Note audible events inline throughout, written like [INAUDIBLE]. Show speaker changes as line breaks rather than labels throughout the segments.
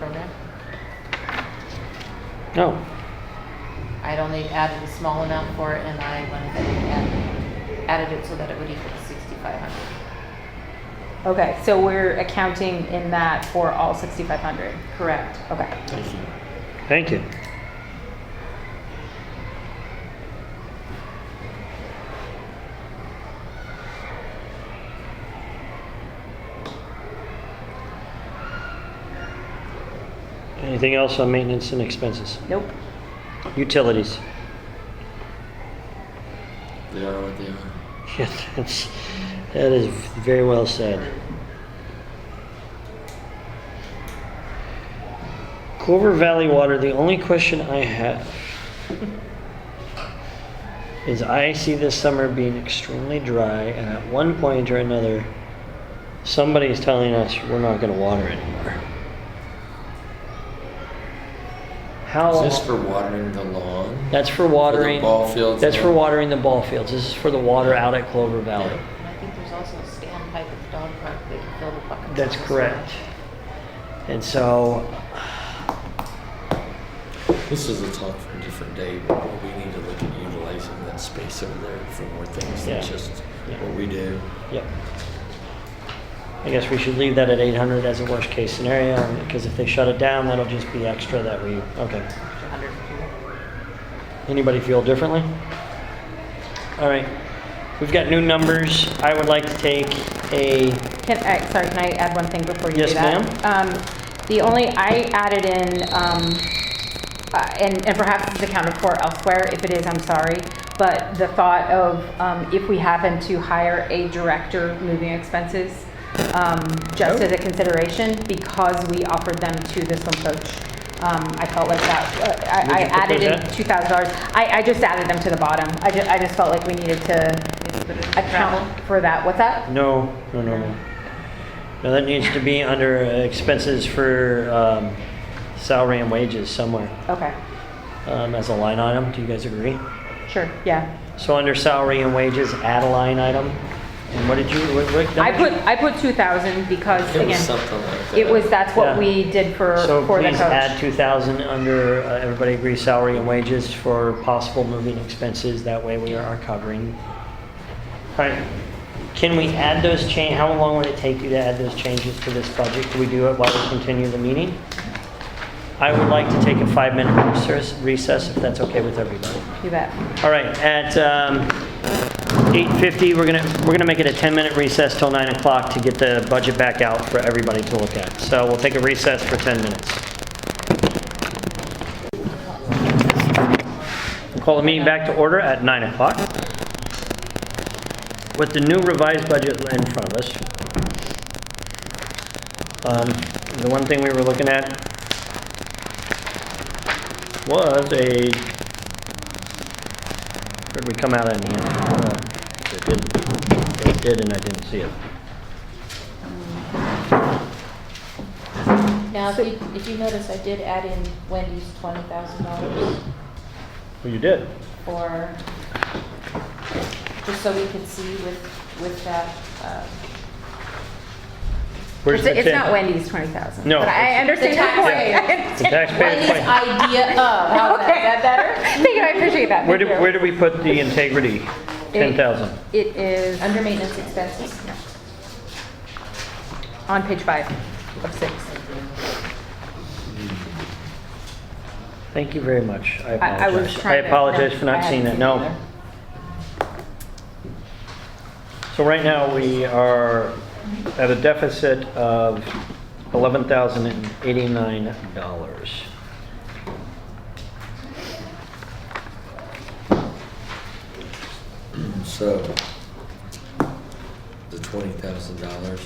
program.
No.
I'd only added a small amount for it, and I went ahead and added it so that it would equal sixty-five hundred.
Okay, so we're accounting in that for all 6,500.
Correct.
Okay.
Thank you. Anything else on maintenance and expenses?
Nope.
Utilities?
They are what they are.
Yeah, that's, that is very well said. Clover Valley Water, the only question I have is I see this summer being extremely dry, and at one point or another, somebody is telling us we're not going to water anymore. How
Is this for watering the lawn?
that's for watering
ball fields
That's
and-
for watering the ball fields. This is for the water out at Clover Valley.
And I think there's also a standpipe at the dog park that can fill the buckets.
That's
up as well.
correct. And so,
This is a talk for a different day, but we need to look at utilizing that space over there for more things
Yeah.
than just
Yeah.
what we do.
yep. I guess we should leave that at 800 as a worst case scenario because if they shut it down, that'll just be extra that we, okay.
Hundred and
Anybody feel differently? All right. We've got new numbers. I would like to take a,
Can, I, sorry, can I add one thing before you
Yes,
do that? ma'am. Um, the only, I added in, um, uh, and, and perhaps it's accounted for elsewhere. If it is, I'm sorry. But the thought of um, if we happen to hire a director moving expenses, um, just
Oh.
as a consideration, because we offered them to the swim coach. Um, I felt like that, uh,
Would
I, I
you
added in
propose
two thousand dollars. I, I just added them to the bottom. I just, I just felt like we needed to
two. But it's travel.
account for that. What's that?
no, no, no, no. No, that needs to be under expenses for um, salary and wages somewhere.
Okay,
um, as a line item. Do you guys agree?
sure, yeah.
So under salary and wages, add a line item. And what did you, what, what?
I put, I put two thousand because,
It was
again,
something like that.
it was, that's
Yeah.
what we did for,
So
for the
please add
coach.
two thousand under, uh, everybody agrees, salary and wages for possible moving expenses. That way we are covering. All right. Can we add those change, how long would it take you to add those changes to this budget? Can we do it while we continue the meeting? I would like to take a five-minute recess- recess, if that's okay with everybody.
You bet.
All right, at um, 8:50, we're gonna, we're gonna make it a 10-minute recess till 9 o'clock to get the budget back out for everybody to look at. So we'll take a recess for 10 minutes. We'll Call the meeting back to order at 9 o'clock. With the new revised budget in front of us, um, the one thing we were looking at was a Where'd we come out in the end? Uh, It didn't, it did and I didn't see it.
Now, if you, if you notice, I did add in Wendy's twenty thousand dollars
Well, you did.
for, just so we could see with, with that, uh,
Where's
It's,
the
it's not
ten?
Wendy's twenty thousand.
No,
But I
it's-
understand your
The
The
[LAUGHS] point.
taxpayer
Wendy's
claim.
idea of, how's that,
[LAUGHS] Okay.
is Oh, that better?
Thank you, I appreciate that.
Where do,
Thank you.
where do we put the integrity? Ten thousand.
It is
Under maintenance expenses.
on page five of six.
Thank you very much. I
I- I
apologize.
was
I
trying to-
apologize for
no,
not
I
seeing it,
hadn't seen
no. So right now, we are at a deficit of eleven thousand and eighty-nine dollars.
So, the twenty thousand dollars,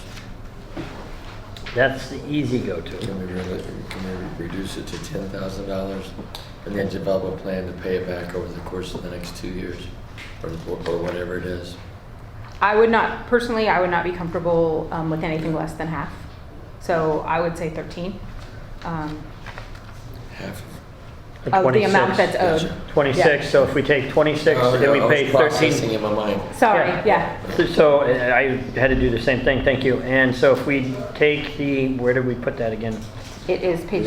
That's the easy go-to.
can we really, can we reduce it to ten thousand dollars? And then develop a plan to pay it back over the course of the next two years, or, or whatever it is.
I would not, personally, I would not be comfortable, um, with anything less than half. So I would say thirteen, um,
Half of
Or
of the amount
26.
that's owed.
Gotcha.
26, so if we take 26,
Oh,
then we
no, I was
pay 13.
Processing in my mind.
Sorry, yeah.
So uh, I had to do the same thing, thank you. And so if we take the, where did we put that again?
It is page